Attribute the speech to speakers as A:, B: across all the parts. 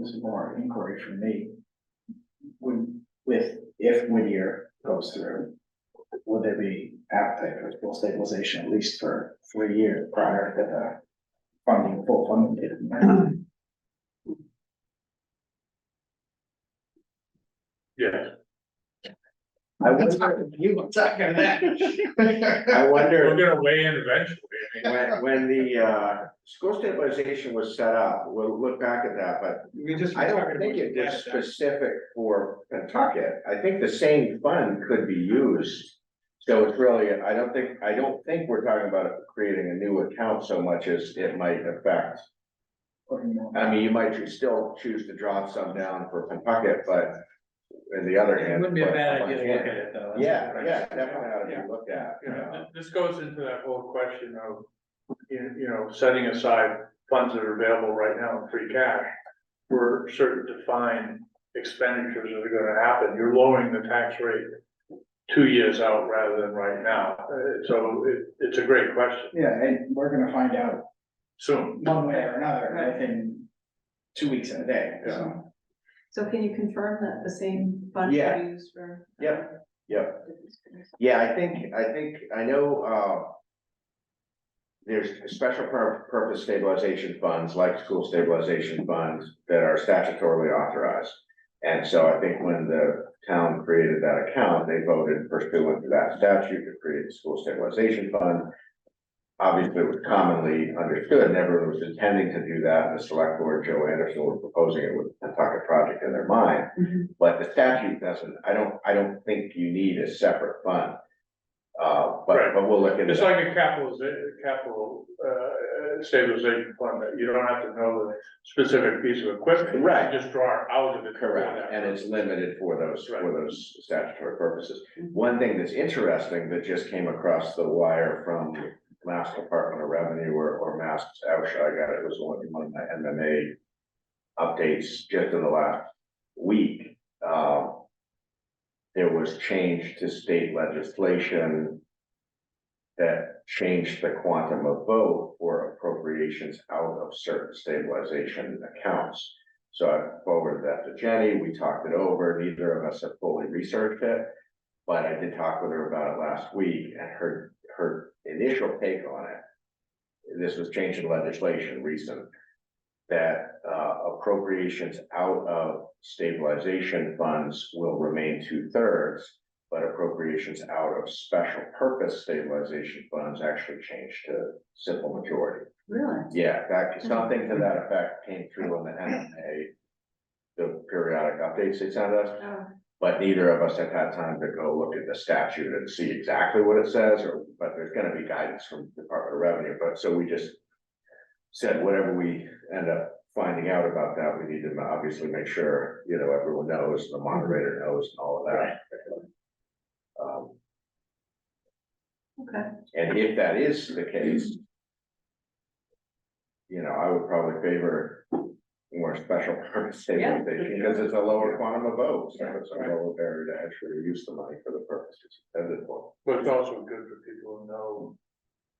A: this is more an inquiry for me. When, with, if Whittier goes through, would there be appetite for full stabilization at least for three years prior to the funding, full funding? date?
B: Yeah.
A: I wonder, you were talking to that.
C: I
B: We're
C: wonder
B: gonna weigh in eventually, I mean,
C: when, when the, uh, school stabilization was set up, we'll look back at that, but
B: we just.
C: I don't think it was specific for Pentucket. I think the same fund could be used. So it's really, I don't think, I don't think we're talking about creating a new account so much as it might affect.
A: Or, you know,
C: I mean, you might choose- still choose to drop some down for Pentucket, but in the other hand.
D: It wouldn't be a
C: but-
D: bad idea to look at it though.
C: Yeah, yeah, definitely ought to be looked at.
B: You know,
C: uh,
B: th- this goes into that whole question of, you, you know, setting aside funds that are available right now in free cash. For certain defined expenditures that are gonna happen, you're lowering the tax rate two years out rather than right now. Uh, so it, it's a great question,
A: Yeah, and we're gonna find out
B: soon.
A: one way or another within two weeks and a day, so.
E: So can you confirm that the same fund
C: Yeah.
E: is used for?
C: Yep, yep. Yeah, I think, I think, I know, uh. There's special pur- purpose stabilization funds, like school stabilization funds, that are statutorily authorized. And so I think when the town created that account, they voted pursuant to that statute to create the school stabilization fund. Obviously, it was commonly understood, never was intending to do that, and the select board, Joe Anderson, was proposing it with the Pawtucket project in their mind.
E: Mhm.
C: But the statute doesn't, I don't, I don't think you need a separate fund. Uh, but,
B: Right.
C: but we'll look into
B: It's
C: that.
B: like a capitalization, capital, uh, stabilization fund, that you don't have to know the specific piece of equipment. You
C: Right.
B: Just draw out of it.
C: Correct, and it's limited for those, for
B: Right.
C: those statutory purposes. One thing that's interesting that just came across the wire from Mass Department of Revenue or, or Mass, actually, I got it, it was one of one of my MMA updates just in the last week. Um, There was change to state legislation that changed the quantum of vote for appropriations out of certain stabilization accounts. So I forwarded that to Jenny, we talked it over, neither of us have fully researched it. But I did talk with her about it last week and her, her initial take on it. This was changed in legislation recent. That uh, appropriations out of stabilization funds will remain two thirds. But appropriations out of special purpose stabilization funds actually changed to simple majority.
E: Really?
C: Yeah, that, something to that effect came through on the NMA. The periodic updates they sent us,
E: Oh,
C: but neither of us have had time to go look at the statute and see exactly what it says, or, but there's gonna be guidance from Department of Revenue, but so we just. Said whatever we end up finding out about that, we need to obviously make sure, you know, everyone knows, the moderator knows and all of that. Um,
E: okay.
C: and if that is the case. You know, I would probably favor more special purpose
E: Yeah.
C: stabilization, because it's a lower quantum of votes, so it's a lower barrier to actually use the money for the purposes intended for.
B: But it's also good for people to know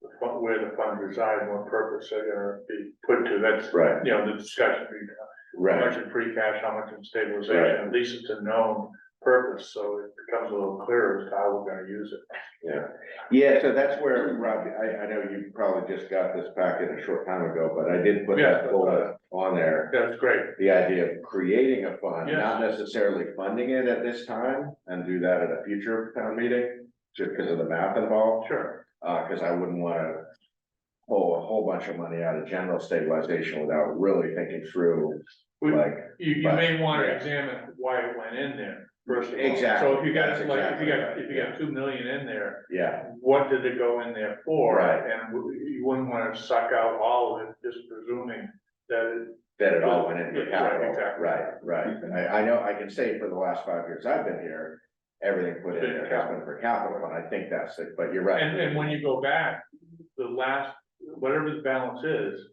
B: the fun, where the funds reside, what purpose they're gonna be put to, that's,
C: Right,
B: you know, the discussion, we have. how
C: right,
B: much in free cash, how much in
C: Right.
B: stabilization, at least it's a known purpose, so it becomes a little clearer as to how we're gonna use it.
C: yeah. Yeah, so that's where, Rob, I, I know you probably just got this packet a short time ago, but I did put
B: Yeah.
C: that bullet on there.
B: That's great,
C: The idea of creating a fund,
B: Yes.
C: not necessarily funding it at this time, and do that at a future town meeting, just because of the math involved.
B: sure,
C: Uh, cause I wouldn't wanna pull a whole bunch of money out of general stabilization without really thinking through,
B: We-
C: like,
B: you, you
C: But-
B: may wanna
C: yeah.
B: examine why it went in there, first of all.
C: Exactly,
B: So if you got,
C: that's
B: like, if you
C: exactly right,
B: got, if you
C: yeah.
B: got two million in there,
C: yeah,
B: what did it go in there for?
C: Right.
B: And w- you wouldn't wanna suck out all of it, just presuming that it
C: that it all went into
B: Yeah, right,
C: capital.
B: exactly.
C: Right, right. And I, I know, I can say for the last five years I've been here, everything put in
B: Been
C: there has been for capital, and I think that's it, but you're right.
B: And, and when you go back, the last, whatever the balance is,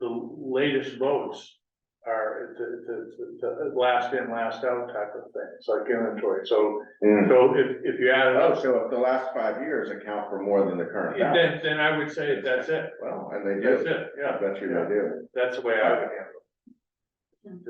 B: the latest votes are the, the, the, the last in, last out type of thing. It's like inventory. So,
C: Mm.
B: so if, if you add it
C: Oh,
B: up,
C: so if the last five years account for more than the current balance,
B: then, then I would say that's it.
C: well, and they
B: That's
C: do,
B: it.
C: I
B: Yeah,
C: bet you they do.
B: that's the way I would handle it.